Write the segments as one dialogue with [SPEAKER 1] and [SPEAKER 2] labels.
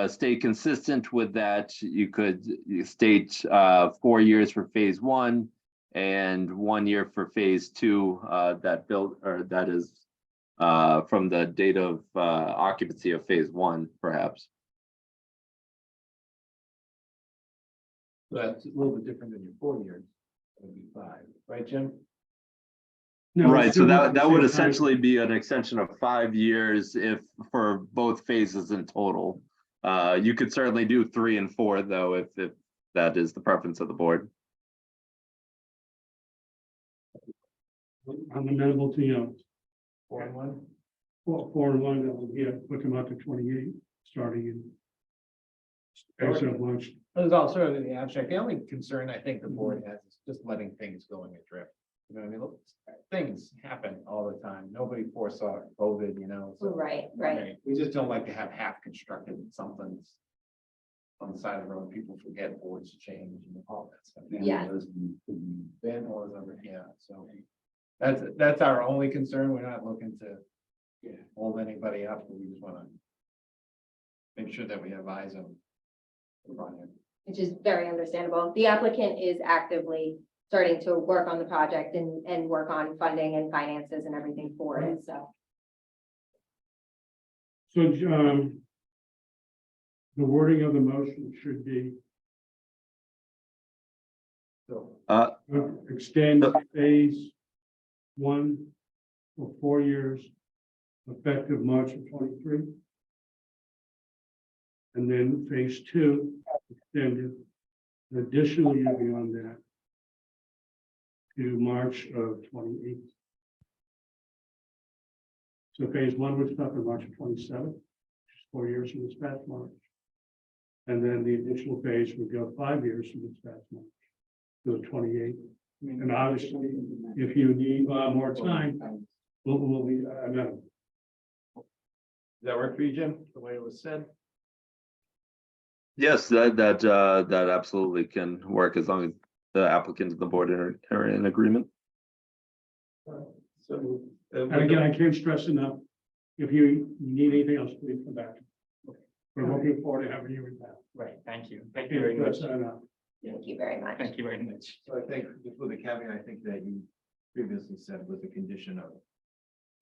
[SPEAKER 1] uh, stay consistent with that, you could you state uh, four years for phase one and one year for phase two, uh, that built, or that is uh, from the date of uh, occupancy of phase one, perhaps.
[SPEAKER 2] That's a little bit different than your four years, it would be five, right, Jim?
[SPEAKER 3] No,
[SPEAKER 1] Right,
[SPEAKER 3] it's
[SPEAKER 1] so
[SPEAKER 3] still
[SPEAKER 1] that,
[SPEAKER 3] not the
[SPEAKER 1] that would
[SPEAKER 3] same
[SPEAKER 1] essentially be an extension of five years if, for both phases in total. Uh, you could certainly do three and four, though, if, if that is the preference of the board.
[SPEAKER 3] time. I'm amenable to, you know,
[SPEAKER 2] Four and one?
[SPEAKER 3] four, four and one, that will get, put them up to twenty-eight, starting in. As of March,
[SPEAKER 2] There's also in the abstract, the only concern I think the board has is just letting things go in adrift. You know, what I mean, Look, things happen all the time, nobody foresaw COVID, you know, so.
[SPEAKER 4] Right, right.
[SPEAKER 2] We just don't like to have half constructed something's. On the side of the road, people forget boards change and all that stuff.
[SPEAKER 4] Yeah.
[SPEAKER 2] Vandalism, yeah, so. That's, that's our only concern, we're not looking to. Hold anybody up, we just wanna. Make sure that we have eyes on. the project.
[SPEAKER 4] Which is very understandable. The applicant is actively starting to work on the project and, and work on funding and finances and everything for it, so.
[SPEAKER 3] so, um. The wording of the motion should be
[SPEAKER 2] So,
[SPEAKER 3] uh, extend phase one for four years, effective March of twenty-three. And then phase two extended an additional year beyond that to March of twenty-eight. So phase one would stop in March of twenty-seven, which is four years from this past March. And then the additional phase would go five years from this past March to the twenty-eighth. And obviously, if you need uh, more time, we'll, we'll be, uh, I know,
[SPEAKER 2] Does that work for you, Jim, the way it was said?
[SPEAKER 1] Yes, that, that, uh, that absolutely can work as long as the applicant and the board are, are in agreement.
[SPEAKER 2] So. uh,
[SPEAKER 3] and again, I can't stress enough, if you need anything else, please come back. We're looking forward to having you in town. uh,
[SPEAKER 5] Right, thank you. Thank you very much.
[SPEAKER 3] Stress that enough.
[SPEAKER 4] Thank you very much.
[SPEAKER 5] Thank you very much.
[SPEAKER 2] So I think, just with the caveat, I think that you previously said was the condition of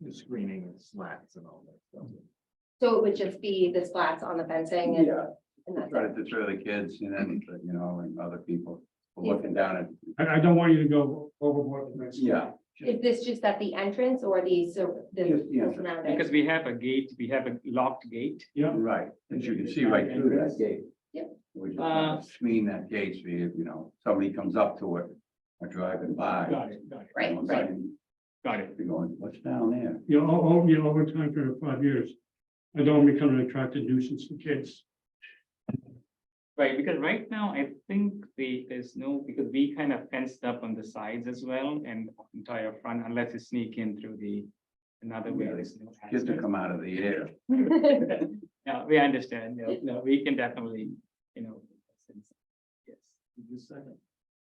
[SPEAKER 2] the screening and slats and all that stuff.
[SPEAKER 4] So it would just be the slats on the fencing and, and that's
[SPEAKER 6] try
[SPEAKER 4] it.
[SPEAKER 6] to deter the kids and then, you know, and other people looking down at.
[SPEAKER 3] I, I don't want you to go overboard. with this.
[SPEAKER 6] Yeah.
[SPEAKER 4] Is this just at the entrance or the, sur- the
[SPEAKER 6] Just the entrance.
[SPEAKER 4] surrounding?
[SPEAKER 5] Because we have a gate, we have a locked gate.
[SPEAKER 3] Yeah,
[SPEAKER 6] Right, and you can see right through that gate.
[SPEAKER 4] Yep.
[SPEAKER 6] We
[SPEAKER 5] Uh,
[SPEAKER 6] just wanna screen that gate, so you, you know, somebody comes up to it or driving by.
[SPEAKER 5] Got it, got it,
[SPEAKER 4] Right,
[SPEAKER 6] you know,
[SPEAKER 4] right.
[SPEAKER 5] got it.
[SPEAKER 6] They're going, what's down there?
[SPEAKER 3] you know, o- o- you know, over time for five years, I don't want to become an attractive nuisance to kids.
[SPEAKER 5] Right, because right now, I think the, there's no, because we kind of fenced up on the sides as well and entire front unless you sneak in through the another way.
[SPEAKER 6] Yeah,
[SPEAKER 5] there's no
[SPEAKER 6] Kids to
[SPEAKER 5] access.
[SPEAKER 6] come out of the air.
[SPEAKER 5] Yeah, we understand. No, no, we can definitely, you know. Yes.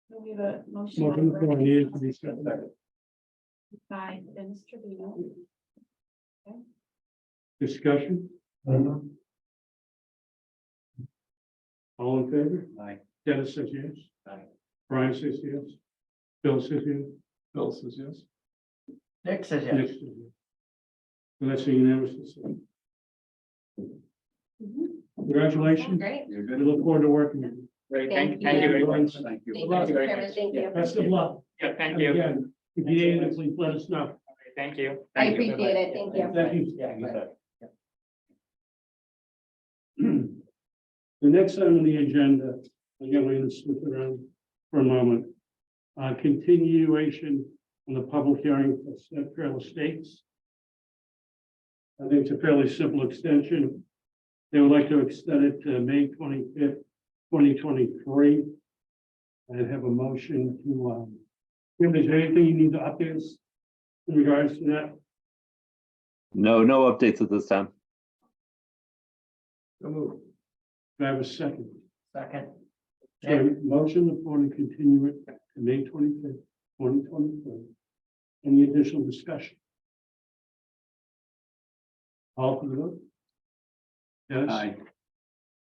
[SPEAKER 7] We have a motion.
[SPEAKER 3] Welcome to
[SPEAKER 7] on
[SPEAKER 3] four
[SPEAKER 7] Brett
[SPEAKER 3] years to be set back.
[SPEAKER 7] By Dennis Trevino.
[SPEAKER 3] Discussion?
[SPEAKER 5] Mm-hmm.
[SPEAKER 3] All in favor?
[SPEAKER 6] Aye.
[SPEAKER 3] Dennis says yes.
[SPEAKER 2] Aye.
[SPEAKER 3] Brian says yes. Bill says yes.
[SPEAKER 2] Bill says yes.
[SPEAKER 5] Next is
[SPEAKER 3] Nick says yes. And that's a unanimous. decision. Congratulations.
[SPEAKER 4] Great.
[SPEAKER 6] You're
[SPEAKER 3] We
[SPEAKER 6] good.
[SPEAKER 3] look forward to working with you.
[SPEAKER 5] Great,
[SPEAKER 4] Thank
[SPEAKER 5] thank, thank you very much.
[SPEAKER 6] Thank you.
[SPEAKER 4] Thank you,
[SPEAKER 5] Thank you
[SPEAKER 4] Mr.
[SPEAKER 5] very
[SPEAKER 4] Chairman.
[SPEAKER 5] much.
[SPEAKER 4] Thank you.
[SPEAKER 3] Best of luck.
[SPEAKER 5] Yeah, thank
[SPEAKER 3] And
[SPEAKER 5] you.
[SPEAKER 3] Again, if you need anything, please let us know.
[SPEAKER 5] Thank you.
[SPEAKER 4] I
[SPEAKER 5] Thank you.
[SPEAKER 4] appreciate it. Thank you.
[SPEAKER 3] Thank you.
[SPEAKER 5] Yeah, good.
[SPEAKER 3] The next item on the agenda, again, we're gonna slip around for a moment. Uh, continuation on the public hearing for Smith Trail Estates. I think it's a fairly simple extension. They would like to extend it to May twenty-fifth, twenty twenty-three. I have a motion to, um, if there's anything you need to update us in regards to that,
[SPEAKER 1] No, no updates at this time.
[SPEAKER 2] So move.
[SPEAKER 3] do I have a second?
[SPEAKER 2] Second.
[SPEAKER 3] So motion upon to continue it to May twenty-fifth, twenty twenty-three. Any additional discussion? All for the vote? Dennis?
[SPEAKER 6] Aye.